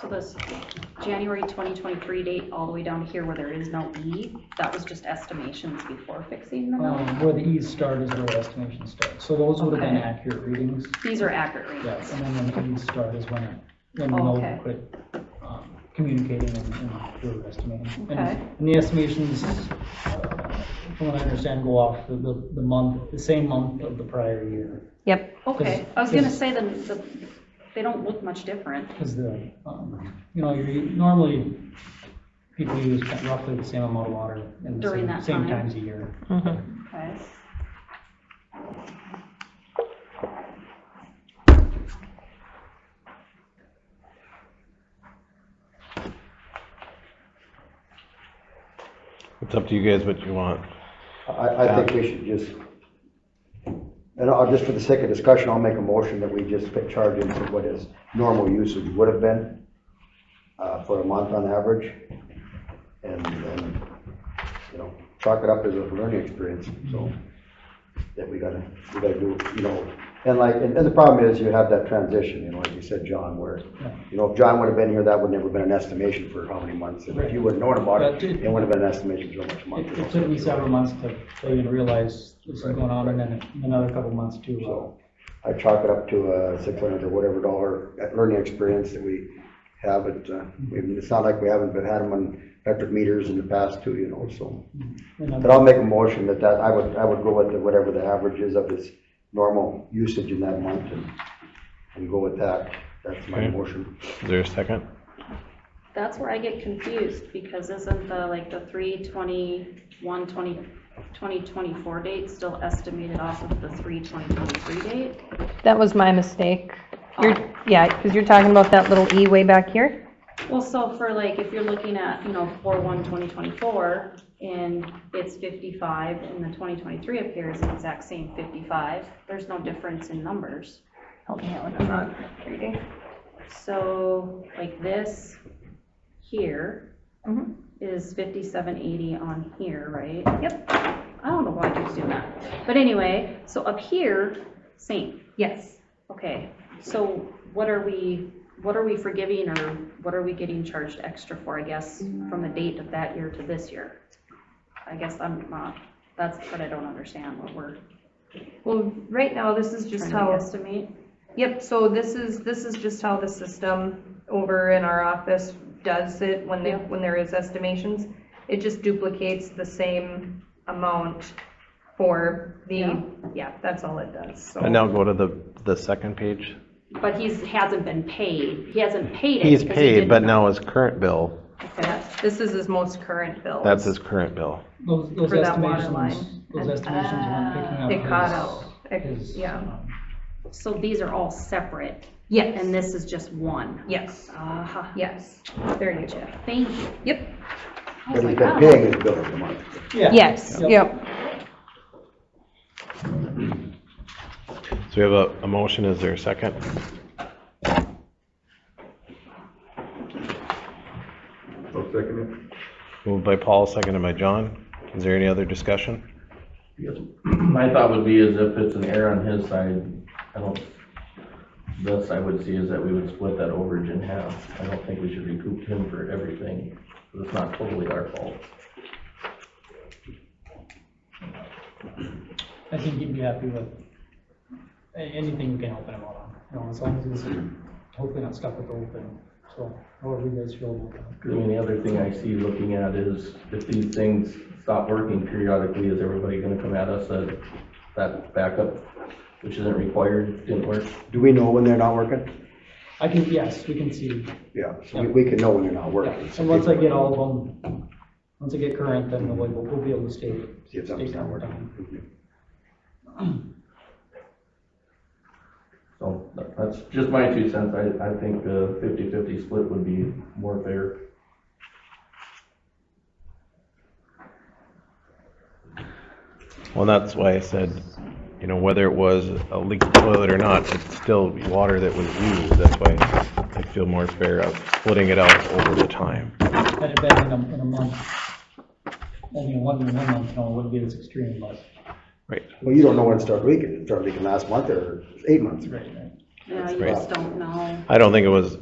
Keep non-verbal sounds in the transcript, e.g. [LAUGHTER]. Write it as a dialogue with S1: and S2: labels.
S1: So this January 2023 date, all the way down to here where there is no E, that was just estimations before fixing them up?
S2: Um, where the E's start is where estimation starts, so those would have been
S1: Okay.
S2: accurate readings,
S1: These are accurate
S2: yes,
S1: readings.
S2: and then when the E's start is when, it- when we'll
S1: Okay.
S2: quit, um, communicating and, and do estimating. And-
S1: Okay.
S2: And the estimations, uh, from what I understand, go off the, the, the month, the same month of the prior year,
S3: Yep.
S1: Okay, I was gonna say then, the- they don't look much different.
S2: because the, um, you know, you normally, people use roughly the same amount of water in the
S1: During
S2: same,
S1: that
S2: same
S1: time.
S2: times a year.
S3: Mhm.
S1: Okay.
S4: It's up to you guys what you want.
S5: I, I think we should just, and I'll, just for the sake of discussion, I'll make a motion that we just put charge into what his normal usage would have been uh, for a month on average, and then, you know, chalk it up as a learning experience, so that we gotta, we gotta do, you know, and like, and and the problem is you have that transition, you know, like you said, John, where, you know, if John would have been here, that would never have been an estimation for how many months, and if you would have known about it, it would have been an estimation for how much month.
S2: It, it took me several months to, to even realize this is going on, and then another couple months to, uh,
S5: So I chalk it up to uh six hundred or whatever dollar learning experience that we have it. uh, I mean, It's not like we haven't been, had them on electric meters in the past too, you know, so.
S2: uh, another-
S5: But I'll make a motion that that, I would, I would go with the- whatever the average is of his normal usage in that month and, and go with that. That's my
S4: Okay.
S5: motion.
S4: Is there a second?
S1: That's where I get confused, because isn't the, like, the 3, 21, 20, 2024 date still estimated off of the 3, 2023 date?
S3: That was my mistake. You're, yeah, because you're talking about that little E way back here.
S1: Well, so for like, if you're looking at, you know, four one twenty twenty-four, and it's fifty-five, and the twenty twenty-three up here is the exact same fifty-five, there's no difference in numbers.
S3: Help me out when I'm not reading.
S1: So, like this here
S6: Mm-hmm.
S3: Mhm.
S1: is fifty-seven eighty on here, right?
S3: Yep.
S1: I don't know why I keep doing that, but anyway, so up here, same,
S3: Yes.
S1: okay, so what are we, what are we forgiving, or what are we getting charged extra for, I guess, from the date of that year to this year? I guess I'm not, that's what I don't understand, what we're
S6: Well, right now, this is just
S1: trying to
S6: how,
S1: estimate.
S6: yep, so this is, this is just how the system over in our office does it when they,
S1: Yeah.
S6: when there is estimations. It just duplicates the same amount for
S1: Yeah.
S6: the, yeah, that's all it does, so.
S4: And now go to the, the second page.
S1: But he's, hasn't been paid, he hasn't paid it.
S4: He's
S1: because he
S4: paid,
S1: didn't-
S4: but now his current bill,
S1: Okay.
S6: This is his most current bill.
S4: that's his current bill.
S2: Those, those
S6: for that water line. Uh,
S2: estimations, those estimations weren't picking up.
S6: It caught
S2: his-
S6: out, It-
S2: his,
S6: yeah.
S2: um,
S1: So these are all separate,
S6: Yes,
S1: and this is just one.
S6: yes,
S1: Ah,
S6: yes, there you go.
S1: thank you. Oh
S6: Yep,
S1: I was
S5: But he's
S1: like,
S5: been
S1: wow.
S5: paying his bill every month.
S2: Yeah.
S3: Yes, yep.
S4: So we have a, a motion, is there a second?
S7: I'll second
S4: Moved by Paul, seconded by John. Is there any other discussion?
S7: it. [CLEARS THROAT] My thought would be is if it's an error on his side, I don't, thus I would see is that we would split that overage in half. I don't think we should recoup him for everything, because it's not totally our fault.
S2: I think he'd be happy with a- anything we can help him out on, you know, as long as he's hopefully not stuck with the open, so, however you guys feel about that.
S7: I mean, the other thing I see looking at is if these things stop working periodically, is everybody gonna come at us that, that backup, which isn't required, didn't work?
S5: Do we know when they're not working?
S2: I can, yes, we can see,
S5: Yeah, so we, we can know when they're not
S2: yeah,
S5: working.
S2: and once I get all of them, once I get current, then we'll, we'll be able to stay.
S5: See if something's not working.
S7: So that- that's just my two cents. I, I think the fifty-fifty split would be more fair.
S4: Well, that's why I said, you know, whether it was a leaked toilet or not, it's still water that was used. That's why I feel more fair of splitting it out over the time.
S2: Had it been in a, in a month, I mean, one, one month, you know, wouldn't be this extreme, but,
S4: Right.
S5: Well, you don't know when it started leaking. It started leaking last month or eight months ago.
S2: right, right.
S1: Yeah, you just don't know.
S4: I don't think it was